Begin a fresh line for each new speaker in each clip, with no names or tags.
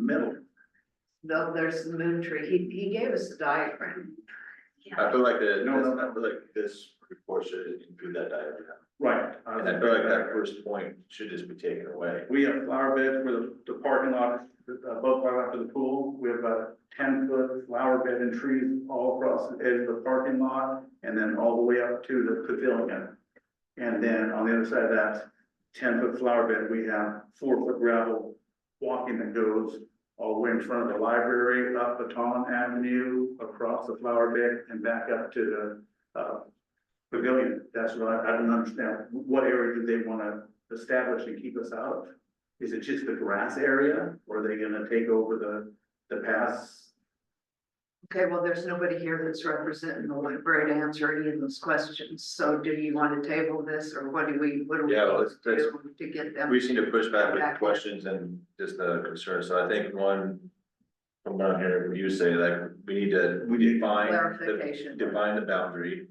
middle.
though there's the moon tree, he, he gave us the diagram.
I feel like the,
No, no,
this- I feel like this report should include that diagram,
Right.
and I feel like that first point should just be taken away.
We have flower beds where the, the parking lot, uh, both right after the pool, we have a ten foot flower bed and trees all across the edge of the parking lot. And then all the way up to the pavilion. And then on the other side of that ten foot flower bed, we have four foot gravel walking that goes. All the way in front of the library, up Baton Avenue, across the flower bed and back up to the, uh. Pavilion, that's what I, I don't understand, what area do they wanna establish and keep us out of? Is it just the grass area, or are they gonna take over the, the paths?
Okay, well, there's nobody here that's representing the library to answer any of those questions, so do you want to table this, or what do we, what do we
Yeah, well,
do
let's- let's-
to get them?
We seem to push back with
Back.
questions and just the concerns, so I think one. From what I'm hearing, what you say, like, we need to, we define, the-
Clarification.
define the boundary.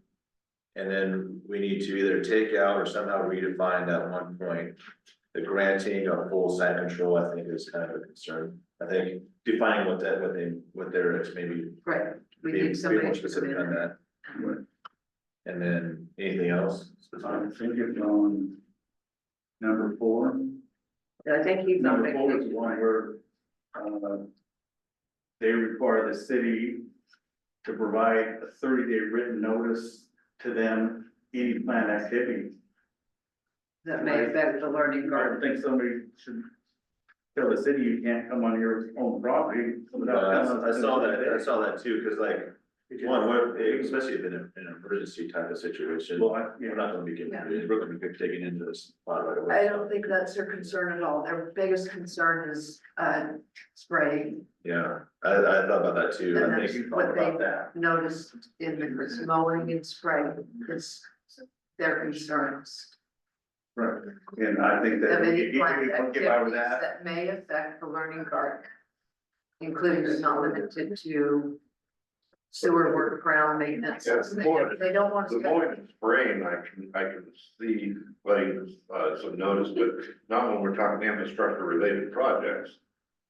And then we need to either take out or somehow redefine that one point. The granting of full site control, I think is kind of a concern, I think defining what that, what they, what their, it's maybe.
Right, we
be-
need
be more
somebody to come
specific on
in.
that. And then anything else?
I think it's on number four.
I think he's on
Number four is the
vacation.
one where, uh, they require the city to provide a thirty-day written notice to them, any planned activity.
that may affect the learning
I don't
garden.
think somebody should tell the city you can't come on your own property. without
Uh, I saw that, I
coming
saw that too, cause like, One, what, especially if in a- in an emergency type of situation,
Well, I, yeah.
we're not gonna be getting, we're gonna be taken into this plot right away.
I don't think that's their concern at all, their biggest concern is, uh, spraying
Yeah, I, I thought about that too,
And
I
that's
think
what
thought about
they-
that,
noticed in the, it's mowing and spraying, it's their concerns.
Right, and I think
Of
that if
any
if
planned
we can get by with that,
activities that may affect the learning garden. Including but not limited to sewer work, ground maintenance,
Yeah, it's
they
more-
they don't want
The
to.
point is brain, I can, I can see letting, uh, some notice, but not when we're talking infrastructure related projects.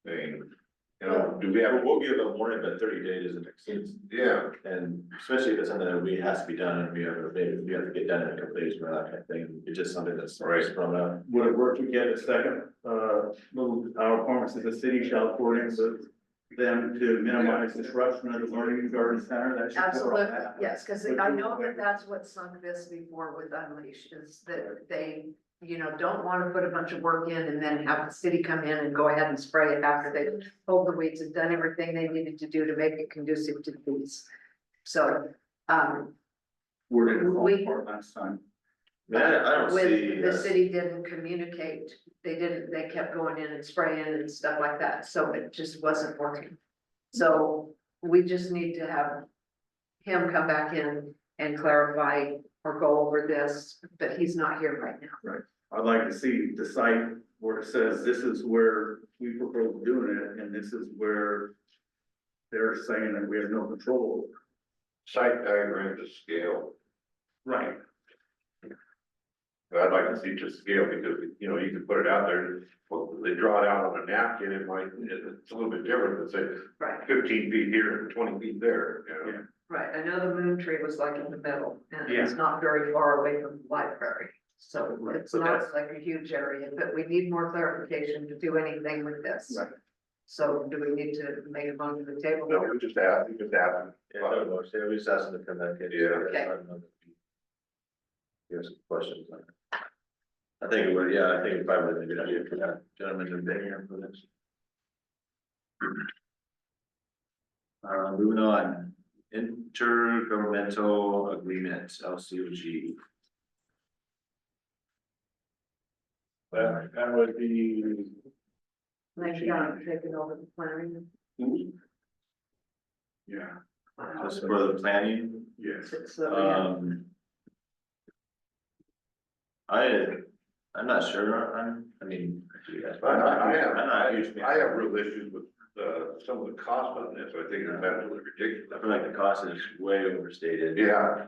I mean, you know, do we have,
yeah, we'll give a warning, but thirty days isn't exceeds,
yeah,
and especially if it's something that we has to be done, and we have, a- we have to get done in a couple days, or that kind of thing, it's just something that's
Right.
thrown up.
would it work to get a second, uh, little, our requirements that the city shall coordinate with them to minimize disruption of the learning and garden center, that should. cover all
Absolutely,
that.
yes, because I know that that's what sunk this before with Unleash, is that they, you know, don't want to put a bunch of work in and then have the city come in and go ahead and spray it after they pulled the weeds and done everything they needed to do to make it conducive to these. So, um,
We're gonna
We-
call for it last time.
Man, I don't see.
With, the
uh,
city didn't communicate, they didn't, they kept going in and spraying and stuff like that, so it just wasn't working. So we just need to have him come back in and clarify or go over this, but he's not here right now.
I'd like to see the site where it says this is where we propose doing it, and this is where they're saying that we have no control.
site diagram to scale.
Right.
But I'd like to see to scale because, you know, you can put it out there, well, they draw it out on a napkin, it might, it's a little bit different than
Right,
say fifteen feet here and twenty feet there, you know?
Yeah.
right, I know the moon tree was like in the middle, and it's
Yeah.
not very far away from the library. So
Right,
it's
but
not like a huge area, but we need more clarification to do anything with this.
Right.
So do we need to make a motion to the table?
No, we just ask, we just ask.
Yeah, no, no, so we just asked them to come back in.
Yeah.
Okay.
Give us some questions. on it. I think, it would. yeah, I think it's probably a good idea for that gentleman to be here for this. Uh, moving on, intergovernmental agreement, L C O G. Uh,
That, that would be,
Like, yeah, taking over the planning
Yeah,
Just for the planning,
yes.
so we have-
um. I, I'm not sure, I'm, I mean.
I, I I have,
I'm
I
not a huge fan.
I have real issues with, uh, some of the cost on this, I think it's
I
absolutely
feel like
ridiculous.
the cost is way overstated.
Yeah,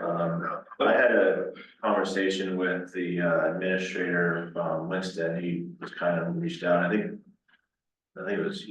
Um, I had a conversation with the uh, administrator, um, Winston, he was kind of reached out, I think. I think it was